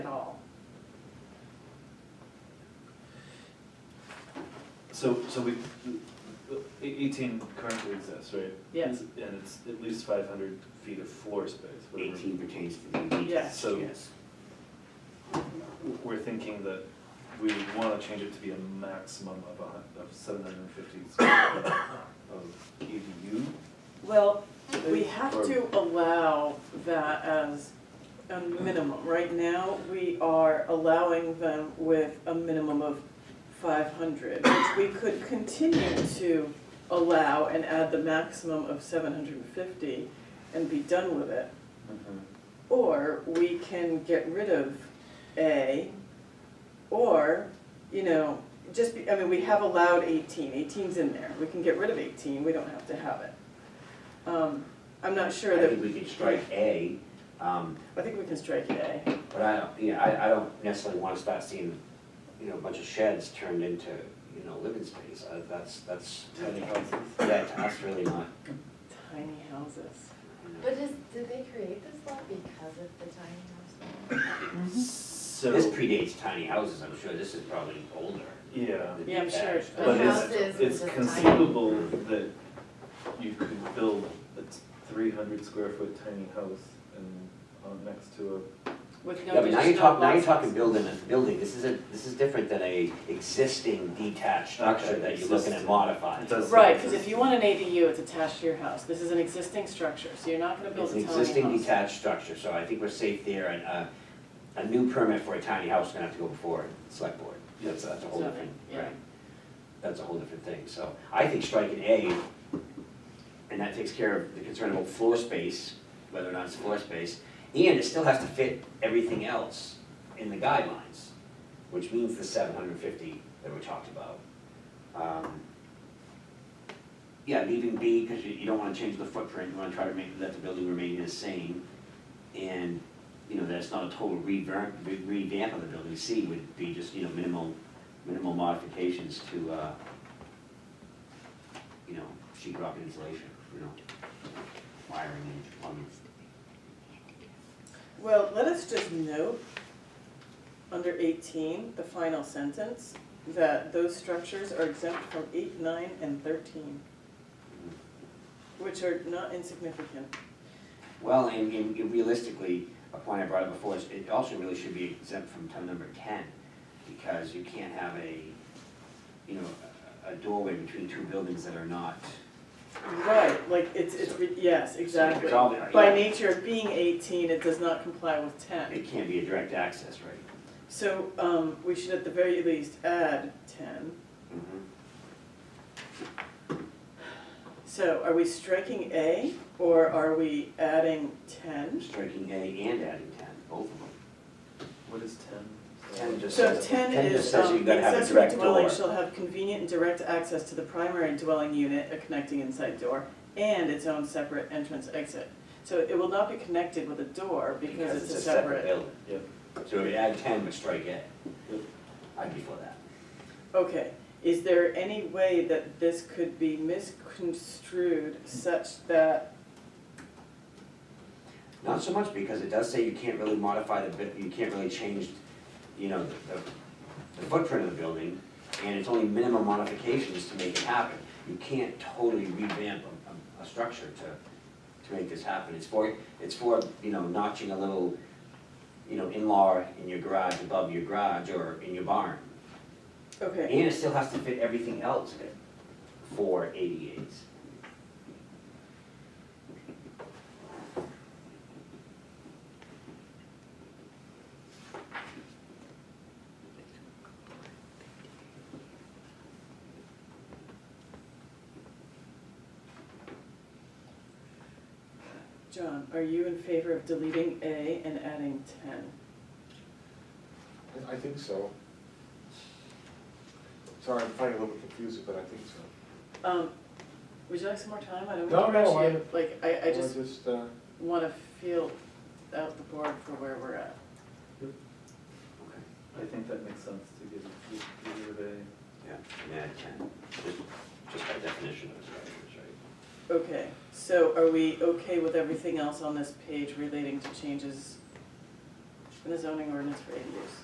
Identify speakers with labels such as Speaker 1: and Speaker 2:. Speaker 1: So, so we, eighteen currently exists, right?
Speaker 2: Yes.
Speaker 1: And it's at least five hundred feet of floor space, whatever.
Speaker 3: Eighteen pertains to the beach.
Speaker 2: Yes.
Speaker 1: So-
Speaker 3: Yes.
Speaker 1: We're thinking that we would wanna change it to be a maximum of a hun, of seven hundred and fifty square feet of E ADU.
Speaker 2: Well, we have to allow that as a minimum. Right now, we are allowing them with a minimum of five hundred, which we could continue to allow and add the maximum of seven hundred and fifty and be done with it. Or we can get rid of A, or, you know, just, be- I mean, we have allowed 18. 18's in there, we can get rid of eighteen, we don't have to have it. Um, I'm not sure
Speaker 3: I
Speaker 2: that,
Speaker 3: think we could strike A, um,
Speaker 2: I think we can strike A.
Speaker 3: but I don't, you know, I, I don't necessarily wanna start seeing, you know, a bunch of sheds turned into, you know, living space, uh, that's, that's,
Speaker 1: Tiny houses.
Speaker 3: yeah, that's really not,
Speaker 2: Tiny houses.
Speaker 3: you know.
Speaker 4: But is, did they create this law because of the tiny house law?
Speaker 3: This
Speaker 1: So,
Speaker 3: predates tiny houses, I'm sure, this is probably older.
Speaker 1: yeah,
Speaker 3: than
Speaker 2: Yeah, I'm sure.
Speaker 3: detached.
Speaker 4: The
Speaker 1: but
Speaker 4: houses
Speaker 1: it's,
Speaker 4: were
Speaker 1: it's
Speaker 4: just
Speaker 1: conceivable that you could build a three hundred square foot tiny house and, uh, next to
Speaker 2: With
Speaker 3: Yeah,
Speaker 2: no
Speaker 3: but now you're
Speaker 2: additional
Speaker 3: talking, now you're
Speaker 2: lots.
Speaker 3: talking building, a building, this is a, this is different than a existing detached structure
Speaker 1: Okay,
Speaker 3: that you're looking at
Speaker 1: existing.
Speaker 3: modifying.
Speaker 1: It does-
Speaker 2: Right, because if you want an ADU, it's attached to your house, this is an existing structure, so you're not gonna build
Speaker 3: It's
Speaker 2: a
Speaker 3: an
Speaker 2: tiny house.
Speaker 3: existing detached structure, so I think we're safe there, and, uh, a new permit for a tiny house is gonna have to go before the select board. That's, that's a whole
Speaker 2: So,
Speaker 3: different,
Speaker 2: yeah.
Speaker 3: right, that's a whole different thing, so I think striking A, and that takes care of the concern about floor space, whether or not it's floor space, and it still has to fit everything else in the guidelines, which means the seven hundred fifty that we talked about. Um, Yeah, leaving B, because you, you don't wanna change the footprint, you wanna try to make, let the building remain the same. And, you know, that's not a total revamp, re- revamp of the building, C would be just, you know, minimal, minimal modifications to, uh, you know, sheet rock insulation, you know, wiring and plumbing.
Speaker 2: Well, let us just note, under eighteen, the final sentence, that those structures are exempt from eight, nine, and thirteen, which are not insignificant.
Speaker 3: Well, and, and realistically, a point I brought up before is it also really should be exempt from time number ten, because you can't have a, you know, a a doorway between two buildings that are not,
Speaker 2: Right, like, it's, it's, re- yes, exactly.
Speaker 3: all-
Speaker 2: By nature of being eighteen, it does not comply with ten.
Speaker 3: it can't be a direct access, right?
Speaker 2: So, um, we should at the very least add ten. So are we striking A, or are we adding ten?
Speaker 3: Striking A and adding ten, both of them.
Speaker 1: a, what is ten?
Speaker 3: Ten just
Speaker 2: So
Speaker 3: says,
Speaker 2: ten
Speaker 3: ten just
Speaker 2: is,
Speaker 3: says you
Speaker 2: um, the
Speaker 3: gotta have a
Speaker 2: accessory
Speaker 3: direct door.
Speaker 2: dwelling shall have convenient and direct access to the primary dwelling unit, a connecting inside door, and its own separate entrance exit. So it will not be connected with a door because it's a separate,
Speaker 3: building.
Speaker 1: Yep.
Speaker 3: So we add ten, but strike A.
Speaker 1: Yep.
Speaker 3: I'd be for that.
Speaker 2: okay. Is there any way that this could be misconstrued such that,
Speaker 3: Not so much, because it does say you can't really modify the, bu- you can't really change, you know, the, the- the footprint of the building, and it's only minimum modifications to make it happen. You can't totally revamp a, a, a structure to, to make this happen. It's for, it's for, you know, notching a little, you know, in-law in your garage, above your garage, or in your barn.
Speaker 2: okay,
Speaker 3: And it still has to fit everything else in it for ADAs.
Speaker 2: John, are you in favor of deleting A and adding ten?
Speaker 5: I- I think so. Sorry, I'm finding it a little bit confusing, but I think so.
Speaker 2: Um, would you like some more time? I don't
Speaker 5: No,
Speaker 2: want to
Speaker 5: no,
Speaker 2: rush you, like, I, I
Speaker 5: Or
Speaker 2: just
Speaker 5: just, uh,
Speaker 2: wanna feel out the board for where we're at.
Speaker 3: Okay.
Speaker 1: I think that makes sense to give, give give it a.
Speaker 3: Yeah, and add ten, just, just by definition of structures, right?
Speaker 2: Okay, so are we okay with everything else on this page relating to changes in the zoning ordinance for ADUs?